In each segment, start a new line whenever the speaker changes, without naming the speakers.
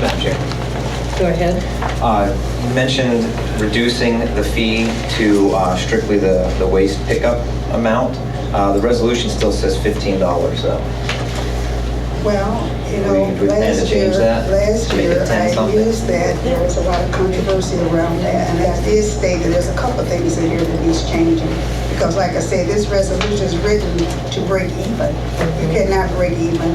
Madam Chair.
Go ahead.
Uh, You mentioned reducing the fee to uh, strictly the the waste pickup amount. Uh, The resolution still says $15, though.
Well,
We-
you know,
we plan to
last year,
change that?
last
Make it
year,
10
I
something?
used that, there was a lot of controversy around that, and that is stated, there's a couple of things in here that needs changing. Because like I said, this resolution is written to break even. You cannot break even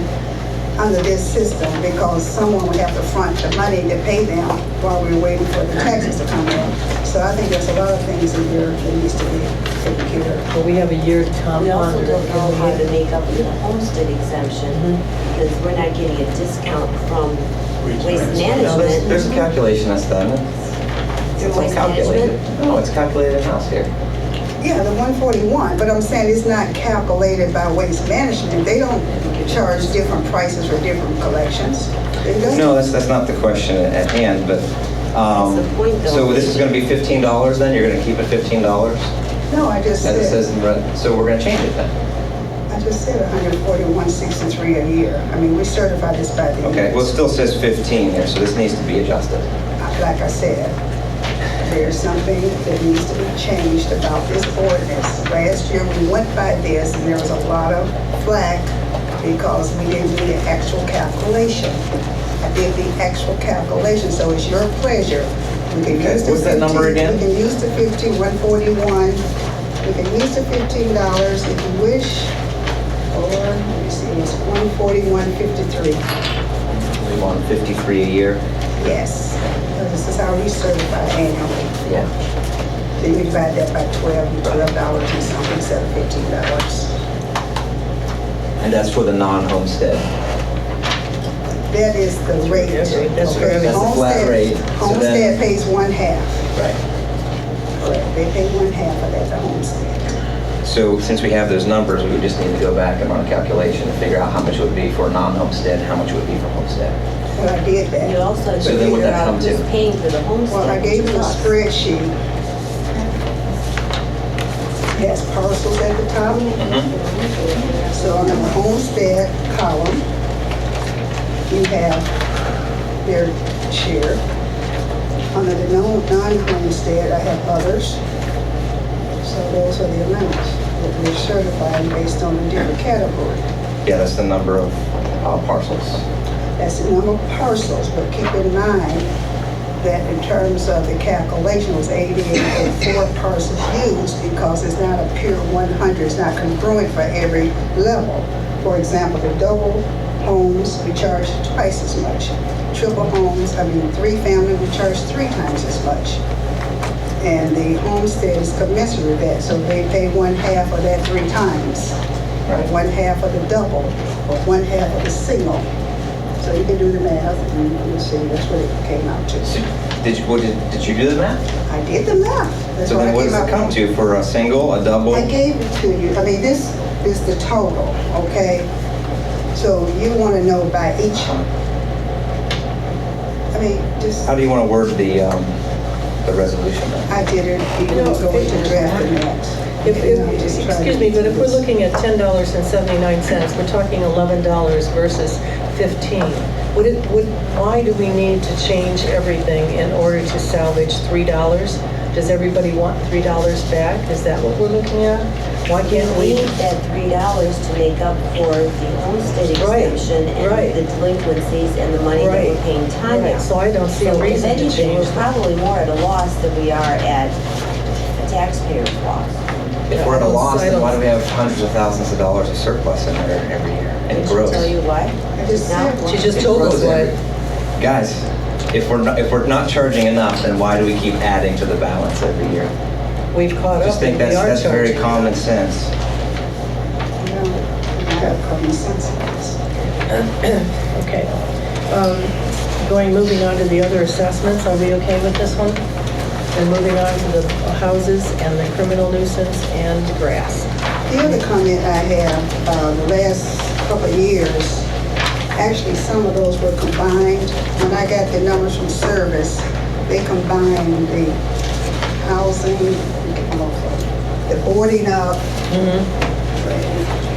under this system, because someone would have to front the money to pay them while we're waiting for the taxes to come in. So I think there's a lot of things in here that needs to be taken care of.
Well, we have a year to come.
We also don't know how to
ponder.
make up the homestead exemption,
Mm-hmm.
because we're not getting a discount from waste
No, there's-
management.
There's a calculation that's done. It's
Through
all
waste
calculated.
management?
No, it's calculated in-house here.
Yeah, the 141, but I'm saying it's not calculated by waste management. They don't charge different prices for different collections. They don't.
No, that's, that's not the question at hand, but, um,
That's the point, though.
so this is gonna be fifteen dollars then? You're gonna keep it fifteen dollars?
No, I just
As it says
said,
in red, so we're gonna change it then?
I just said 14163 a year. I mean, we certify this by the
Okay,
year.
well, it still says fifteen here, so this needs to be adjusted.
Like I said, there's something that needs to be changed about this ordinance. Last year, we went by this, and there was a lot of flack because we didn't do the actual calculation. I did the actual calculation, so it's your pleasure. We can
Okay,
use the
what's that number
15
again?
We can use the 15, 141. We can use the $15 if you wish, or, let me see, it's 141.53.
We want fifty-three a year?
Yes, this is how we certify annually.
Yeah.
Then you divide that by 12, twelve dollars and something instead of fifteen dollars.
And that's for the non-homestead?
That is the rate.
That's right, that's for
Okay,
every-
That's the flat
Homestead-
rate, so then-
Homestead pays one half,
Right.
correct, they pay one half of that to homestead.
So since we have those numbers, we just need to go back and run a calculation and figure out how much it would be for non-homestead, how much it would be for homestead.
But I did
You
that,
also have
So
to
then would
figure
that
out
come
who's
to?
paying for the homestead.
well, I gave
which
you a
is us.
spreadsheet. That's parcels at the top, so on the homestead column, you have their share. Under the non- non-homestead, I have others. So those are the amounts that we're certifying based on the different category.
Yeah, that's the number of uh, parcels.
That's the number of parcels, but keep in mind that in terms of the calculation, it was 88.4 parcels used because it's not a pure 100, it's not congruent for every level. For example, the double homes, we charge twice as much. Triple homes, I mean, three-family, we charge three times as much. And the homestead is commensurate with that, so they pay one half of that three times, or
Right.
one half of the double, or one half of the single. So you can do the math and you see that's what it came out
So
to.
Did you, what did, did you do the math?
I did the math. That's
So then
I
what
came
does it
up
come
with.
to for a single, a double?
I gave it to you. I mean, this is the total, okay? So you want to know by each, I mean, just,
Um, How do you want to word the, um, the resolution then?
I did it, you
You know,
know, going to draft the maps.
If,
And I'm just
if,
trying to
excuse me,
do
but if we're
this.
looking at ten dollars and seventy-nine cents, we're talking eleven dollars versus fifteen. Would it, would, why do we need to change everything in order to salvage three dollars? Does everybody want three dollars back? Is that what we're looking at? Why can't we?
We need that three dollars to make up for the homestead
Right,
exemption
right.
and the delinquencies and the money that
Right,
we're paying Tanya.
right. So I don't see a
So if
reason to
anything,
change
We're
that.
probably more at a loss than we are at a taxpayer's loss.
If we're at a loss, then why do we have hundreds of thousands of dollars of surplus in there every year? And it grows.
Tell you what?
I just
Now-
said-
She just
It
told us
grows every-
why.
Guys, if we're, not- if we're not charging enough, then why do we keep adding to the balance every year?
We've caught
I just
up
think
and we
that's,
are
that's very
charging.
common sense.
You know, you have common sense in this.
Okay. Um, Going, moving on to the other assessments, are we okay with this one? And moving on to the houses and the criminal nuisance and grass.
The other comment I have, uh, the last couple of years, actually, some of those were combined. When I got the numbers from service, they combined the housing, um, the boarding up, and